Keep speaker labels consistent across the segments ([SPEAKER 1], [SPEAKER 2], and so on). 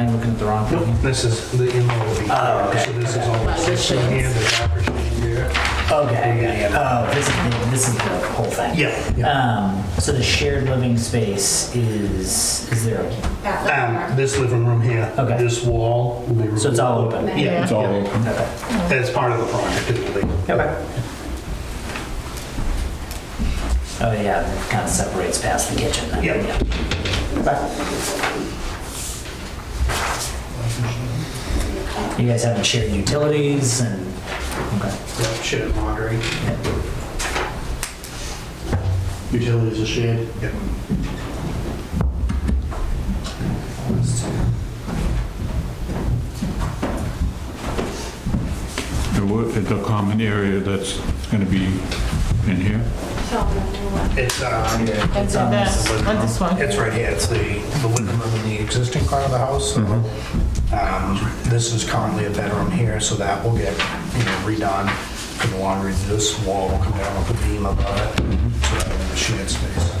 [SPEAKER 1] they're on?
[SPEAKER 2] Nope, this is, the in-law will be
[SPEAKER 3] Oh,
[SPEAKER 2] here,
[SPEAKER 3] okay.
[SPEAKER 2] so this is all the system here, the driver's seat here.
[SPEAKER 3] Okay, oh, this is the, this is the whole thing.
[SPEAKER 2] Yeah, yeah.
[SPEAKER 3] Um, so the shared living space is, is there, a-
[SPEAKER 2] Um, this living room here,
[SPEAKER 3] Okay.
[SPEAKER 2] this wall will be removed.
[SPEAKER 3] so it's all open?
[SPEAKER 2] Yeah,
[SPEAKER 4] It's all
[SPEAKER 2] yeah.
[SPEAKER 4] open.
[SPEAKER 2] That's part of the project, it'll be.
[SPEAKER 3] Okay. Oh, yeah, it kind of separates past the kitchen then.
[SPEAKER 2] Yeah.
[SPEAKER 3] Okay. You guys having shared utilities and, okay.
[SPEAKER 2] Yep, Shit and laundry.
[SPEAKER 5] Utilities are shared.
[SPEAKER 2] Yep.
[SPEAKER 4] The wo- the common area that's going to be in here?
[SPEAKER 2] It's, um,
[SPEAKER 3] It's on this.
[SPEAKER 6] On this one.
[SPEAKER 2] It's right here, it's the, the living room in the existing part of the house. so, um, This is currently a bedroom here, so that will get, you know, redone for the laundry. This wall will come down with a beam above it, so that'll be the shared space.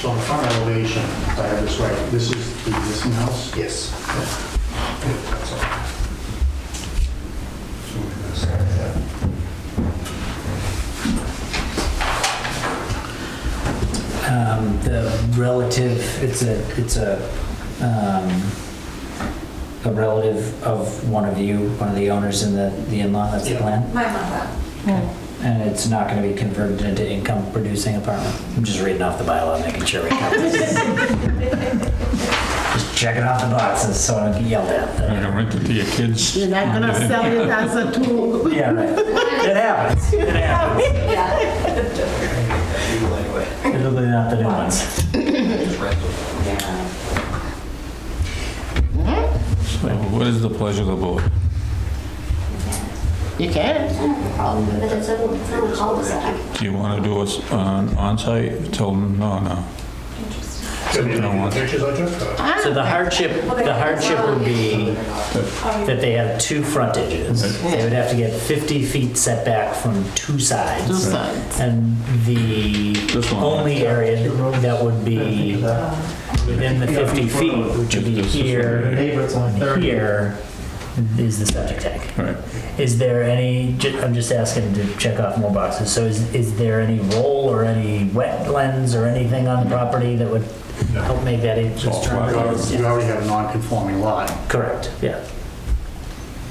[SPEAKER 5] So in front elevation, if I have this right, this is the existing house?
[SPEAKER 2] Yes. Yeah, that's all. So we're gonna start that.
[SPEAKER 3] Um, the relative, it's a, it's a, um, a relative of one of you, one of the owners in the, the in-law, that's the
[SPEAKER 2] Yeah.
[SPEAKER 3] plan?
[SPEAKER 7] My mother.
[SPEAKER 3] And it's not gonna be converted into income-producing apartment? I'm just reading off the bylaw, making sure we cover this. Just checking off the boxes so I don't get yelled
[SPEAKER 4] You're
[SPEAKER 3] at.
[SPEAKER 4] going to rent it to your kids?
[SPEAKER 6] You're not gonna sell it as a tool.
[SPEAKER 3] Yeah, right. It happens, it happens.
[SPEAKER 7] Yeah.
[SPEAKER 3] It'll be not the new ones.
[SPEAKER 7] Yeah.
[SPEAKER 4] So What is the pleasure of the board?
[SPEAKER 6] You can.
[SPEAKER 7] Problem with it, it's a, it's a cul-de-sac.
[SPEAKER 4] Do you want to do us on onsite? Tell them, no, no.
[SPEAKER 2] So we
[SPEAKER 4] Don't
[SPEAKER 2] have
[SPEAKER 4] want-
[SPEAKER 2] the Pictures I took? uh,
[SPEAKER 6] Ah.
[SPEAKER 3] So the hardship, the hardship would be that they have two frontages. They would have to get 50 feet setback from two sides.
[SPEAKER 6] Two sides.
[SPEAKER 3] And the
[SPEAKER 4] This one.
[SPEAKER 3] only area that would be within the 50 feet, which would be
[SPEAKER 4] This is right
[SPEAKER 3] here
[SPEAKER 5] Neighbors
[SPEAKER 3] and
[SPEAKER 5] on
[SPEAKER 3] here, is the septic tank.
[SPEAKER 4] Right.
[SPEAKER 3] Is there any, ju- I'm just asking to check off more boxes, so is, is there any roll or any wetlands or anything on the property that would help make that eight?
[SPEAKER 4] all flat out.
[SPEAKER 5] Oh, You already have a non-conforming lot.
[SPEAKER 3] Correct, yeah.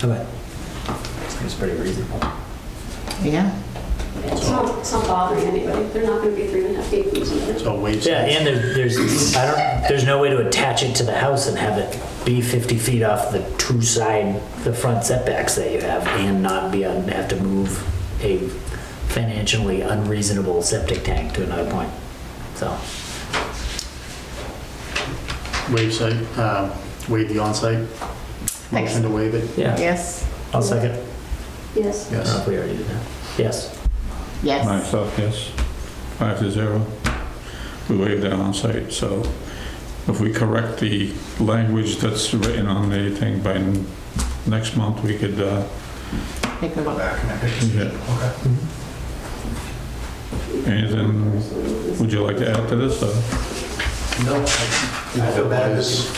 [SPEAKER 3] Okay. Seems pretty reasonable.
[SPEAKER 6] Yeah.
[SPEAKER 8] It's not, it's not bothering anybody. They're not going to be three and a half feet from each other.
[SPEAKER 5] So waves.
[SPEAKER 3] Yeah, and there- there's, I don't, there's no way to attach it to the house and have it be 50 feet off the two side, the front setbacks that you have and not be, on- have to move a financially unreasonable septic tank to another point, so.
[SPEAKER 5] Wave site, um, waive the onsite.
[SPEAKER 6] Thanks.
[SPEAKER 5] Motion to waive it?
[SPEAKER 3] Yeah,
[SPEAKER 6] Yes.
[SPEAKER 3] I'll second.
[SPEAKER 8] Yes.
[SPEAKER 3] I don't know
[SPEAKER 5] Yes.
[SPEAKER 3] if we already did that. Yes.
[SPEAKER 6] Yes.
[SPEAKER 4] Myself, yes. Five to zero. We waived that onsite, so if we correct the language that's written on the thing by n- next month, we could, uh,
[SPEAKER 6] Take a
[SPEAKER 2] go
[SPEAKER 6] look.
[SPEAKER 2] back and I picked-
[SPEAKER 4] yeah.
[SPEAKER 2] Okay.
[SPEAKER 4] Anything, would you like to add to this, or?
[SPEAKER 5] No. I
[SPEAKER 1] feel bad.
[SPEAKER 8] There's a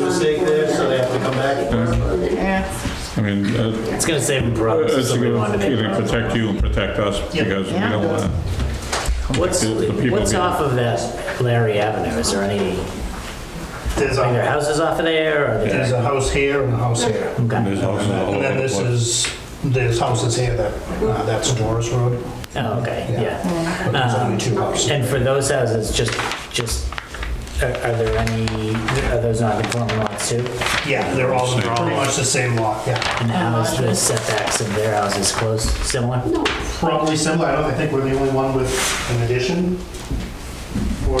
[SPEAKER 8] mistake there, so they have to come back.
[SPEAKER 6] Yeah.
[SPEAKER 4] I mean, uh,
[SPEAKER 3] It's gonna save them problems.
[SPEAKER 4] it's
[SPEAKER 3] if we
[SPEAKER 4] gonna
[SPEAKER 3] wanted to make
[SPEAKER 4] it'll
[SPEAKER 3] problems.
[SPEAKER 4] protect you and protect us, because we
[SPEAKER 6] Yeah.
[SPEAKER 4] don't want
[SPEAKER 3] What's,
[SPEAKER 4] The people
[SPEAKER 3] what's
[SPEAKER 4] get-
[SPEAKER 3] off of that Larry Avenue? Is there any,
[SPEAKER 2] There's
[SPEAKER 3] are there
[SPEAKER 2] a,
[SPEAKER 3] houses off of there or? are there-
[SPEAKER 2] there's a house here and a house here.
[SPEAKER 4] to,
[SPEAKER 3] Okay.
[SPEAKER 4] there's houses all over
[SPEAKER 2] And then
[SPEAKER 4] the
[SPEAKER 2] this
[SPEAKER 4] place.
[SPEAKER 2] is, there's houses here that, uh, that's Doris Road,
[SPEAKER 3] Oh, okay, yeah.
[SPEAKER 2] but there's only two houses.
[SPEAKER 3] And for those houses, just, just, are are there any, are those non-conforming lots too?
[SPEAKER 2] Yeah, they're all, they're all much the same lot, yeah.
[SPEAKER 3] And how is the setbacks of their houses close, similar?
[SPEAKER 8] No,
[SPEAKER 5] Probably similar, I don't, I think we're the only one with an addition, or. I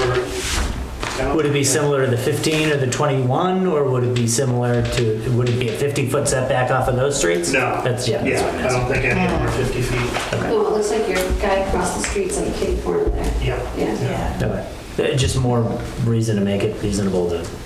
[SPEAKER 5] don't
[SPEAKER 3] Would it be
[SPEAKER 5] think-
[SPEAKER 3] similar to the 15 or the 21, or would it be similar to, would it be a 50-foot setback off of those streets?
[SPEAKER 2] No.
[SPEAKER 3] That's, yeah, that's
[SPEAKER 2] Yeah,
[SPEAKER 3] what I'm
[SPEAKER 2] I
[SPEAKER 3] asking.
[SPEAKER 2] don't think any of them are 50 feet.
[SPEAKER 8] no, it looks like your guy across the street's like a kitty corner there.
[SPEAKER 2] Yeah.
[SPEAKER 8] Yeah.
[SPEAKER 3] Okay. Uh, Just more reason to make it reasonable to